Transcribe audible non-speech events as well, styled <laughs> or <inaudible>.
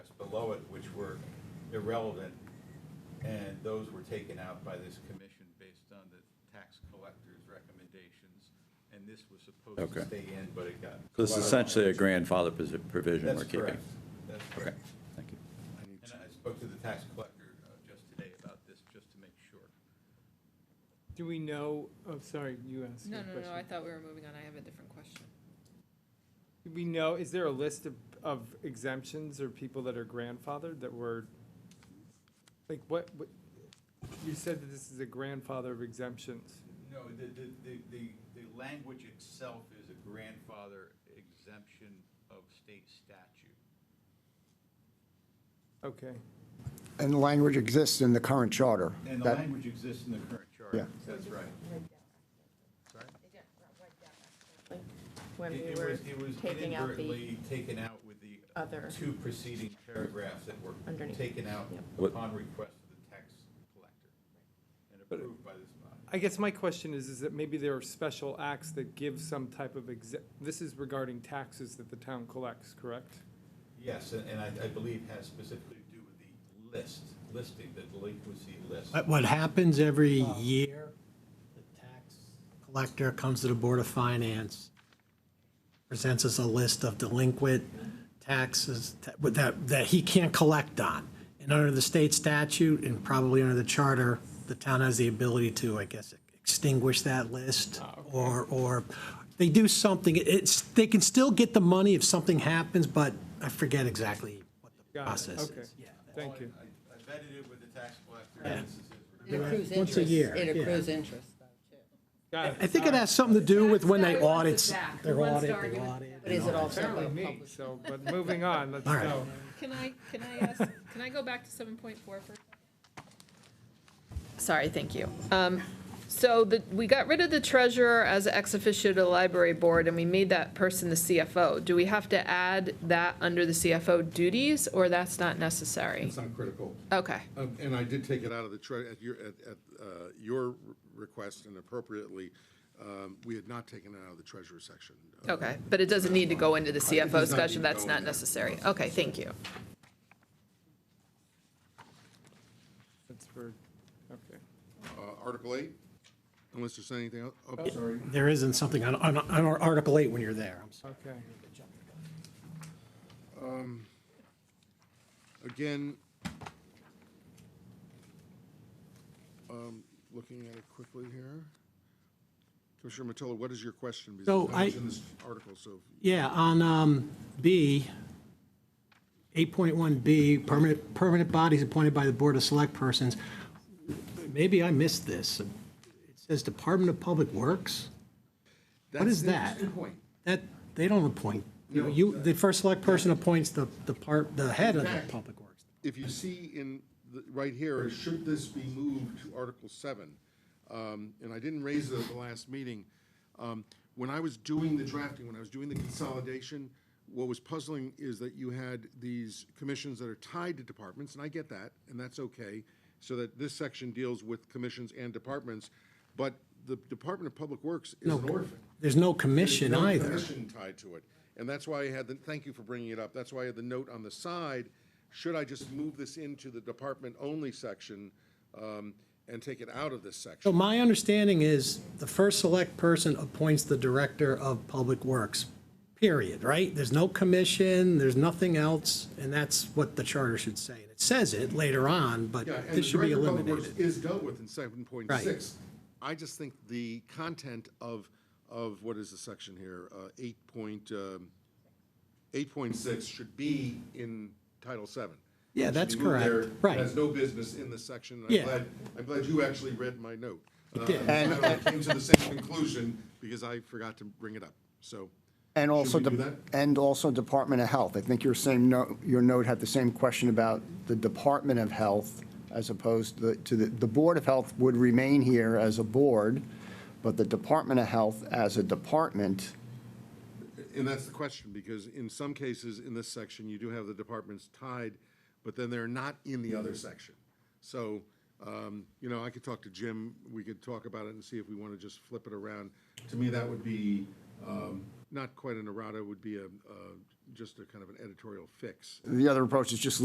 below it, which were irrelevant, and those were taken out by this commission based on the tax collector's recommendations, and this was supposed to Okay. stay in, but it got. So this is essentially a grandfather posi- provision we're That's keeping? correct. That's Okay, correct. thank you. And I spoke to the tax collector uh, just today about this, just to make sure. Do we know, oh, sorry, you asked No, your no, no, I question. thought we were moving on, I have a different question. Do we know, is there a list of, of exemptions or people that are grandfathered that were, like, what, what, you said that this is a grandfather of exemptions. No, the, the, the, the, the language itself is a grandfather exemption of state statute. Okay, And the language exists in the current charter. And the That- language exists in the current Yeah. charter. That's right. Sorry? when It we it were was, it was taking out the inadvertently taken out with the other. two preceding paragraphs that were Underneath. taken out Yep. What- upon request of the tax collector and approved by this body. I guess my question is, is that maybe there are special acts that give some type of exe, this is regarding taxes that the town collects, correct? Yes, and and I, I believe has specifically to do with the list, listing, the delinquency list. What, what happens every year, the tax collector comes to the Board of Finance, presents us a list of delinquent taxes that- that, that he can't collect on. And under the state statute and probably under the charter, the town has the ability to, I guess, extinguish that list. Ah, Or, or they do something, it's, they can still get the money if something happens, but I forget exactly what the Got it, process okay. is. Yeah. Thank you. I I vetted it with the tax collector, and this is his It accrues Once a interest. year, It yeah. accrues interest, though, too. Got it. <laughs> I think it All right. has something to do with when they Zach wants audit, it back. their Who wants audit, to they argue with audit. But is it also Apparently about me, public? so, but moving on, let's All right. go. Can I, can I ask, can I go back to seven point four for a second? Sorry, thank you. Um, So the, we got rid of the treasurer as ex officio to the library board, and we made that person the CFO. Do we have to add that under the CFO duties, or that's not necessary? It's not critical. Okay, Um, And I did take it out of the, tre- at your, at, at uh, your request and appropriately, um, we had not taken it out of the treasurer section. Uh, okay, but it doesn't need to go into the It CFO does not need discussion, to go that's in not there. necessary. Okay, thank you. That's for, okay. uh, Article eight, unless there's anything else. Oh, sorry. There isn't something on, on, on Article 8 when you're there, I'm sorry. Okay, Again, um, looking at it quickly here. Commissioner Mottola, what is your question? Because So that was I- in this Article, so Yeah, on um, B, 8.1B, permanent, permanent bodies appointed by the Board of Select Persons. Maybe I missed this. It says Department of Public Works? What That's is an that? interesting point. That, they don't appoint. You, you- the first select person appoints the, the part, the head of the Public Works. if you see in, the- right here, should this be moved to Article 7? Um, And I didn't raise it at the last meeting. Um, When I was doing the drafting, when I was doing the consolidation, what was puzzling is that you had these commissions that are tied to departments, and I get that, and that's okay, so that this section deals with commissions and departments, but the Department of Public Works is an orphan. There's no commission There's no either. Commission tied to it. And that's why I had the, thank you for bringing it up. That's why I had the note on the side. Should I just move this into the department only section um, and take it out of this So section? my understanding is the first select person appoints the director of public works, period, right? There's no commission, there's nothing else, and that's what the charter should say. And It says it later on, but Yeah, and this the should be Director of Public Works eliminated. is dealt with in seven point six. I just think the content of, of what is the section here, uh, eight point, um, eight point six should be in Title Seven. Yeah, It should that's be moved there. correct. Right. Has no business in this section. and Yeah. I'm glad, I'm glad you actually read my note. Uh, did. And I came to the same conclusion because I forgot to bring it up, so. And also, Should we de- do that? and also Department of Health. I think your same note, your note had the same question about the Department of Health as opposed to the, to the, the Board of Health would remain here as a board, but the Department of Health as a department, And that's the question, because in some cases, in this section, you do have the departments tied, but then they're not in the other section. So, um, you know, I could talk to Jim, we could talk about it and see if we want to just flip it around. To me, that would be, um, not quite an errata, it would be a, uh, just a kind of an editorial fix. the other approach is just